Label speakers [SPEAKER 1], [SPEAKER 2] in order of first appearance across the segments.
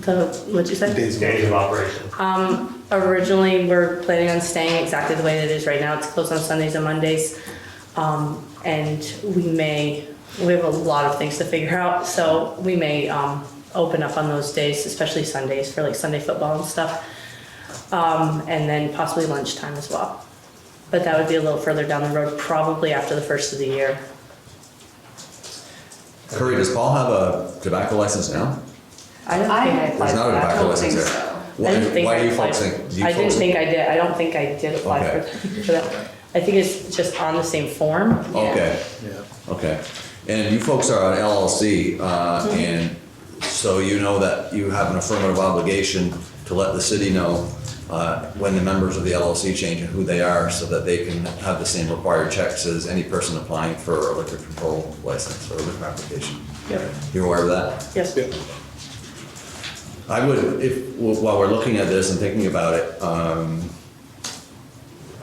[SPEAKER 1] the, what'd you say?
[SPEAKER 2] Days
[SPEAKER 3] Days
[SPEAKER 2] of
[SPEAKER 3] of operation.
[SPEAKER 1] Um, originally, we're planning on staying exactly the way it is right now. It's closed on Sundays and Mondays. Um, and we may, we have a lot of things to figure out, so we may, um, open up on those days, especially Sundays for like Sunday football and stuff. Um, and then possibly lunchtime as well. But that would be a little further down the road, probably after the first of the year.
[SPEAKER 4] Curry, does Paul have a tobacco license now?
[SPEAKER 1] I don't think
[SPEAKER 5] I
[SPEAKER 1] I
[SPEAKER 4] There's
[SPEAKER 1] applied
[SPEAKER 4] not
[SPEAKER 1] for
[SPEAKER 4] a
[SPEAKER 1] that.
[SPEAKER 5] I
[SPEAKER 4] tobacco
[SPEAKER 5] don't
[SPEAKER 4] license
[SPEAKER 5] think
[SPEAKER 4] there.
[SPEAKER 5] so.
[SPEAKER 1] I
[SPEAKER 4] Why,
[SPEAKER 1] didn't think
[SPEAKER 4] why
[SPEAKER 1] I
[SPEAKER 4] do you
[SPEAKER 1] applied-
[SPEAKER 4] folks think? Do you
[SPEAKER 1] I didn't
[SPEAKER 4] folks-
[SPEAKER 1] think I did, I don't think I did apply for,
[SPEAKER 4] Okay.
[SPEAKER 1] for that. I think it's just on the same form.
[SPEAKER 4] Okay,
[SPEAKER 2] Yeah.
[SPEAKER 4] okay. And you folks are an LLC, uh,
[SPEAKER 1] Mm-hmm.
[SPEAKER 4] and so you know that you have an affirmative obligation to let the city know uh, when the members of the LLC change and who they are, so that they can have the same required checks as any person applying for a liquor control license or liquor application.
[SPEAKER 1] Yep.
[SPEAKER 4] You're aware of that?
[SPEAKER 1] Yes.
[SPEAKER 2] Yeah.
[SPEAKER 4] I would, if, while we're looking at this and thinking about it, um,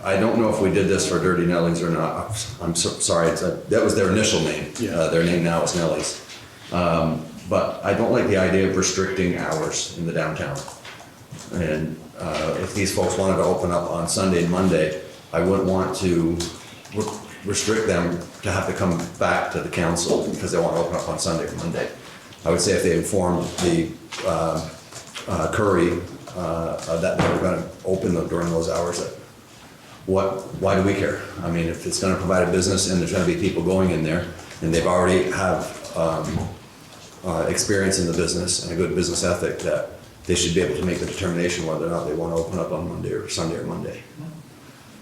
[SPEAKER 4] I don't know if we did this for Dirty Nellies or not. I'm so, sorry, it's a- that was their initial name.
[SPEAKER 2] Yeah.
[SPEAKER 4] Uh, their name now is Nellies. Um, but I don't like the idea of restricting hours in the downtown. And, uh, if these folks wanted to open up on Sunday and Monday, I wouldn't want to re- restrict them to have to come back to the council because they want to open up on Sunday or Monday. I would say if they informed the, uh, uh, Curry, uh, uh, that they were gonna open them during those hours, that what, why do we care? I mean, if it's gonna provide a business and there's gonna be people going in there, and they've already have, um, uh, experience in the business and a good business ethic, that they should be able to make the determination whether or not they wanna open up on Monday or Sunday or Monday.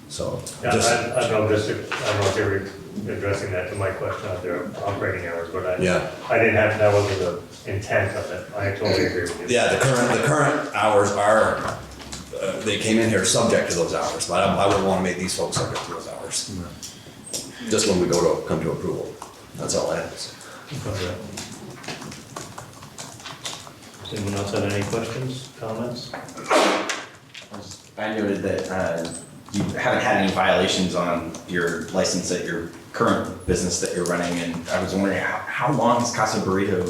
[SPEAKER 4] So,
[SPEAKER 3] Yeah,
[SPEAKER 4] just,
[SPEAKER 3] I, I know, just, if- I don't know if they were addressing that to my question out there, operating hours, but I.
[SPEAKER 4] Yeah.
[SPEAKER 3] I didn't have, that wasn't the intent of it, I totally agree with you.
[SPEAKER 4] yeah, the current, the current hours are, uh, they came in here subject to those hours, but I, I wouldn't wanna make these folks subject to those hours. Just when we go to, come to approval, that's all I have to say.
[SPEAKER 3] Does anyone else have any questions, comments?
[SPEAKER 6] I noted that uh, you haven't had any violations on your license at your current business that you're running, and I was wondering, how, how long has Casa Burrito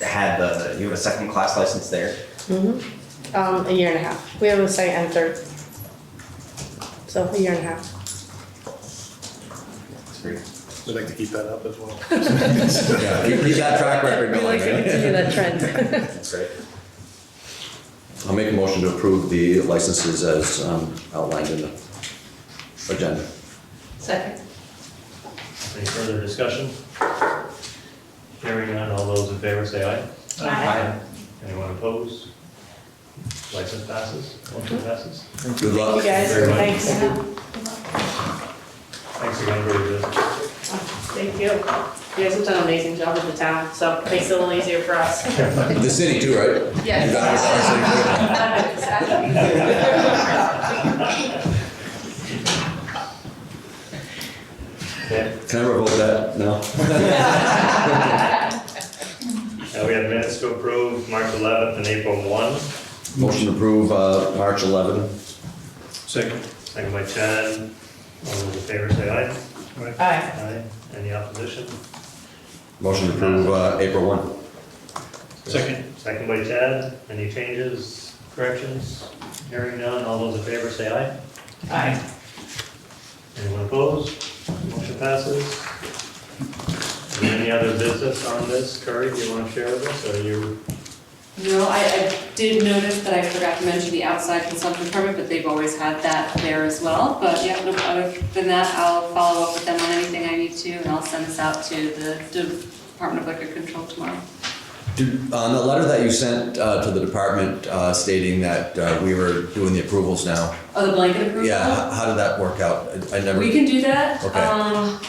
[SPEAKER 6] had the, you have a second class license there?
[SPEAKER 1] Um, a year and a half. We have a second and third. So a year and a half.
[SPEAKER 6] It's pretty-
[SPEAKER 2] We'd like to keep that up as well.
[SPEAKER 4] Yeah, keep keep that track record
[SPEAKER 1] We like
[SPEAKER 4] going.
[SPEAKER 1] to continue that trend.
[SPEAKER 6] That's great.
[SPEAKER 4] I'll make a motion to approve the licenses as um, outlined in the agenda.
[SPEAKER 5] Second.
[SPEAKER 3] Any further discussion? Hearing none, all those in favor say aye.
[SPEAKER 5] Aye.
[SPEAKER 3] Anyone opposed? License passes, motion passes.
[SPEAKER 4] Good luck.
[SPEAKER 1] You guys,
[SPEAKER 3] Very much.
[SPEAKER 1] thanks.
[SPEAKER 3] Thanks again for your business.
[SPEAKER 1] Thank you. You guys have done an amazing job with the town, so it makes it a little easier for us.
[SPEAKER 4] The city too, right? You got it.
[SPEAKER 3] Okay,
[SPEAKER 4] Can I revoke that? No?
[SPEAKER 3] now Uh, we have minutes to approve, March 11th and April 1.
[SPEAKER 4] Motion to approve uh, March 11.
[SPEAKER 3] Second. Second by Chad. All those in favor say aye.
[SPEAKER 1] Aye.
[SPEAKER 3] Aye. Any opposition?
[SPEAKER 4] Motion to approve uh, April 1.
[SPEAKER 3] Second. Second by Chad. Any changes, corrections? Hearing none, all those in favor say aye.
[SPEAKER 1] Aye.
[SPEAKER 3] Anyone opposed? Motion passes. Is there Any other business on this? Curry, do you want to share with us, or you?
[SPEAKER 5] No, I, I did notice that I forgot to mention the outside consumption permit, but they've always had that there as well. But yeah, no, other than that, I'll follow up with them on anything I need to, and I'll send this out to the Department of Liquor Control tomorrow.
[SPEAKER 4] Did- On the letter that you sent uh, to the department uh, stating that uh, we were doing the approvals now,
[SPEAKER 5] Oh, the blanket approval?
[SPEAKER 4] yeah, h- how did that work out? I- I never,
[SPEAKER 5] We can do that.
[SPEAKER 4] Okay.
[SPEAKER 5] Um,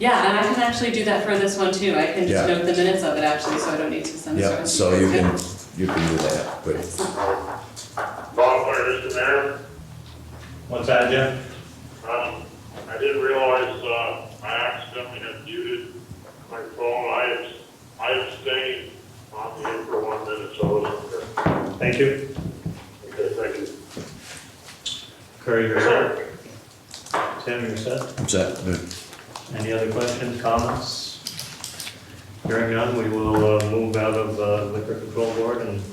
[SPEAKER 5] Yeah, and I can actually do that for this one too. I can just
[SPEAKER 4] Yeah.
[SPEAKER 5] note the minutes of it actually, so I don't need to send this.
[SPEAKER 4] yeah,
[SPEAKER 5] around.
[SPEAKER 4] so you can, you can do that, but
[SPEAKER 7] Bob, wait just a minute.
[SPEAKER 3] What's that, Jim?
[SPEAKER 7] Um, I didn't realize, uh, I accidentally had muted my phone. I abs- I abstained on the for one minute, so I wasn't here.
[SPEAKER 3] Thank you.
[SPEAKER 7] Okay, thank you.
[SPEAKER 3] Curry, you're set. Tim, you're set.
[SPEAKER 4] I'm set.
[SPEAKER 3] Any other questions, comments? Hearing none, we will uh, move out of uh, liquor control board and